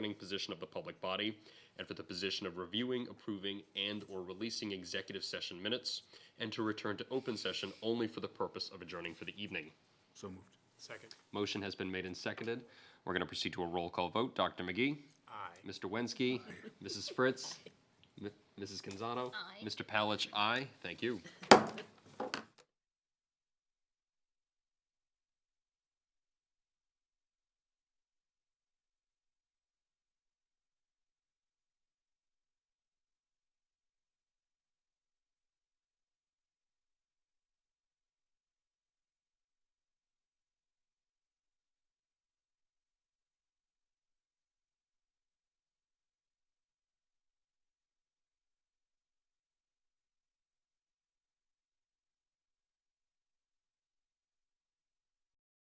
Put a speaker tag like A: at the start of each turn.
A: controlling position of the public body, and for the position of reviewing, approving, and/or releasing executive session minutes, and to return to open session only for the purpose of adjourning for the evening.
B: So moved.
C: Second.
A: Motion has been made and seconded. We're going to proceed to a roll call vote. Dr. McGee?
C: Aye.
A: Mr. Wensky? Mrs. Fritz? M- Mrs. Canzano?
D: Aye.
A: Mr. Palich, aye. Thank you.